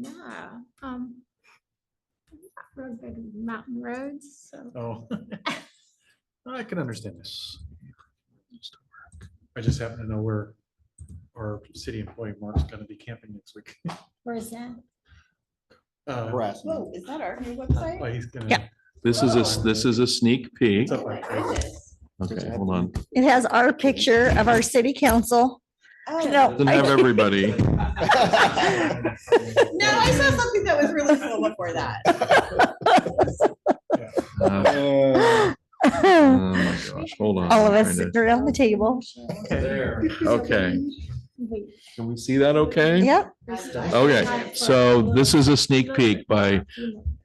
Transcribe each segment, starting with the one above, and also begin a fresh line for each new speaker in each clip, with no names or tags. Yeah, um, road, big mountain roads, so.
Oh. I can understand this. I just happen to know where our city employee Mark's gonna be camping next week.
Where is that?
Uh,
harassment.
Whoa, is that our new website?
But he's gonna.
Yeah. This is a, this is a sneak peek.
it's up
Oh my
like crazy.
goodness.
Okay, hold on.
It has our picture of our city council.
Oh.
No.
Doesn't have everybody.
No, I saw something that was really cool before that.
Uh,
Uh,
Oh
All
my gosh, Hold on.
of
I'm
us
trying
sit
to-
around the table.
Okay,
Wait,
can we see that okay?
Yep.
there's-
Okay, so this is a sneak peek by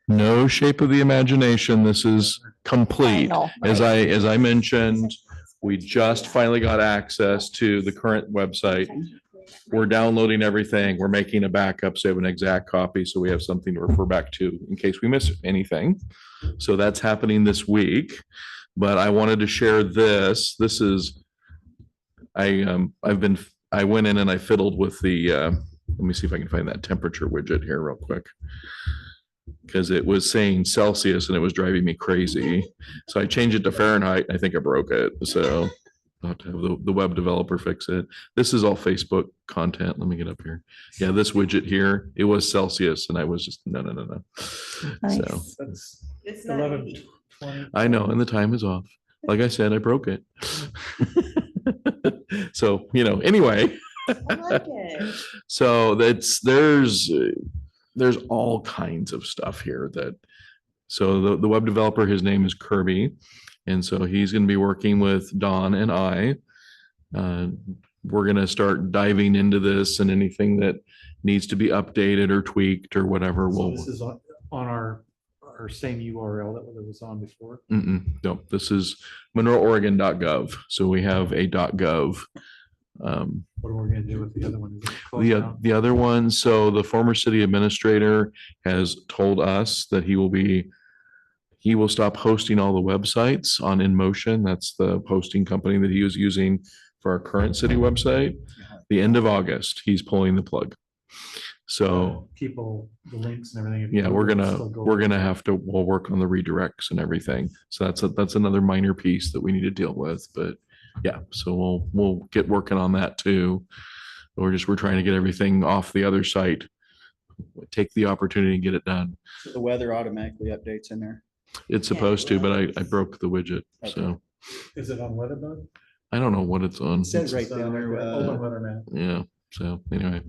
no shape of the imagination. This is complete.
final.
As I, as I mentioned, we just finally got access to the current website. We're downloading everything. We're making a backup, so we have an exact copy, so we have something to refer back to in case we miss anything. So that's happening this week, but I wanted to share this. This is, I, um, I've been, I went in and I fiddled with the, uh, let me see if I can find that temperature widget here real quick. Because it was saying Celsius and it was driving me crazy. So I changed it to Fahrenheit. and I think I broke it. So I'll have to have the, the web developer fix it. This is all Facebook content. Let me get up here. Yeah, this widget here, it was Celsius and I was just, no, no, no, no. So
Nice.
That's
It's not
eleven
easy.
twenty.
I know, and the time is off. Like I said, I broke it. So, you know, anyway.
I like it.
So that's, there's, uh, there's all kinds of stuff here that, so the, the web developer, his name is Kirby. And so he's going to be working with Don and I. Uh, We're going to start diving into this and anything that needs to be updated or tweaked or whatever.
So
We'll,
this is on, on our, our same URL that was on before.
Mm-mm, no, this is monroeoregon.gov. So we have a .gov. Um,
What are we gonna do with the other one? Is it closed
The, uh, o-
now?
the other one, so the former city administrator has told us that he will be, he will stop hosting all the websites on InMotion. That's the hosting company that he was using for our current city website. The end of August, he's pulling the plug. So,
People, the links and everything.
oh. yeah, we're gonna,
Still go.
we're gonna have to, we'll work on the redirects and everything. So that's, a- that's another minor piece that we need to deal with, but yeah, so we'll, we'll get working on that too. We're just, we're trying to get everything off the other site. Take the opportunity and get it done.
The weather automatically updates in there.
It's
Yeah,
supposed to, but I, I
well-
broke the widget, so
Is it on Weatherbug?
I don't know what it's on.
It says right
It's on
down
our
there,
web-
uh,
Open weather map.
Yeah, so anyway,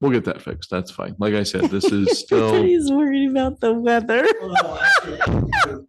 we'll get that fixed. That's fine. Like I said, this is still,
Everybody's worried about the weather.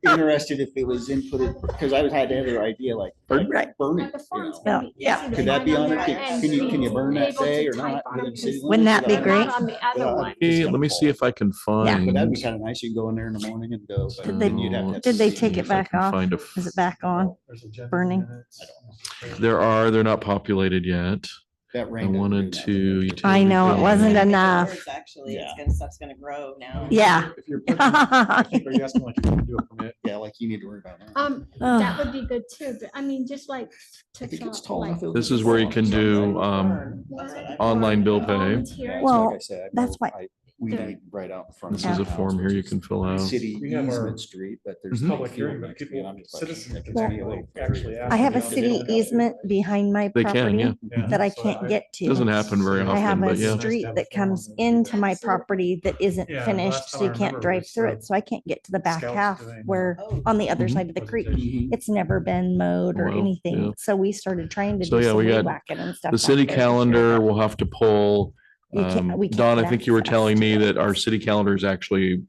Interested if it was inputted, because I had to have an idea like, like
Pardon?
Right.
burn
At
it.
the
you
farms,
know.
Yeah,
maybe easy to
yeah.
Could that
find
be
on
on
the
there?
end
Can- Can you, can you
screen.
burn that
Able to
day or not?
type on
within
it,
city
'cause
Wouldn't
limits?
that be
I don't know.
they're
great?
not On the
Yeah.
other one.
Hey, let me see if I can
Yeah,
find.
But that'd be kind of nice. You can go in there in the morning and go. but
Did
then
they-
you'd have to have
Did they
secret-
take
See
it
if I
back
can
off?
find a-
Is it back on?
There's agenda
Burning.
minutes.
There are, they're not populated yet.
That
I
rain. didn't
wanted
do
to.
that.
utility
I know, it
bill.
wasn't
Yeah,
enough.
it's Actually, it's
Yeah.
gonna, stuff's gonna grow now.
Yeah.
If you're putting- I think, Are you asking like if you can do a permit?
Yeah, like you need to worry about that.
Um, that
Ah.
would be good too, but I mean, just like. to
I think it's
talk,
tall
like,
enough. it'll
This
be
is where you
long,
can
so
do,
like-
um,
That's what I-
online bill pay.
volunteer.
That's
Well,
like I said, I
that's
know
why-
I- We
There.
need right out in front.
This
of
is a
my house,
form here
which
you
is
can fill
a
out.
City
We have our-
easement street, but there's.
Mhm.
no
Public hearing,
field
but
next to it,
people-
I'm just like,
citizens
it's
can
gonna be
actually-
like-
actually ask
I have a
Yeah.
city easement behind my
They can, yeah.
property that I can't get
Doesn't
to.
happen very
I have
often,
a
but yeah.
street that comes into my property that isn't
Yeah, the
finished,
last
so
time
you
I
can't
remember
drive
was,
through
uh,
it. So I can't get to the back
Scouts
half
doing, uh,
where
Oh.
on the other
Mm-hmm.
side of the creek.
Presentation.
It's never been mowed or
Well, yeah.
anything. So we started trying to
So,
do
yeah,
some
we got
weed whacking and stuff.
The
back
city
there.
calendar will have to pull.
We can't-
um,
we can't
Don, I think you were
access
telling me
to
that our
it.
city calendar is actually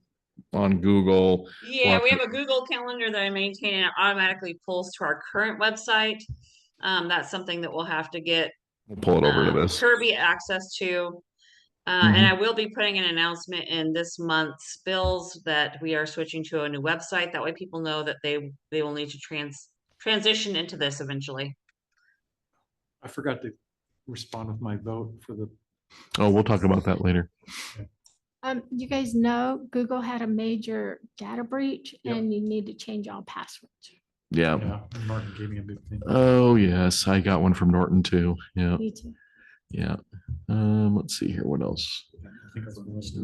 on Google.
Yeah,
Or-
we have a Google Calendar that I maintain and it automatically pulls to our current website. Um, that's something that we'll have to get
We'll Pull it over to
um,
this. Mm-hmm.
Kirby access to. Uh, and I will be putting an announcement in this month's bills that we are switching to a new website. That way people know that they, they will need to trans, transition into this eventually.
I forgot to respond with my vote for the,
Oh, we'll talk about that later.
Um, you guys know Google had a major data breach
Yep.
and you need to change all passwords.
Yeah.
yeah, Martin gave me a big thing.
Oh, yes. I got one from Norton too. Yeah,
Me too.
yeah. Um, let's see here. What else?
I think I was-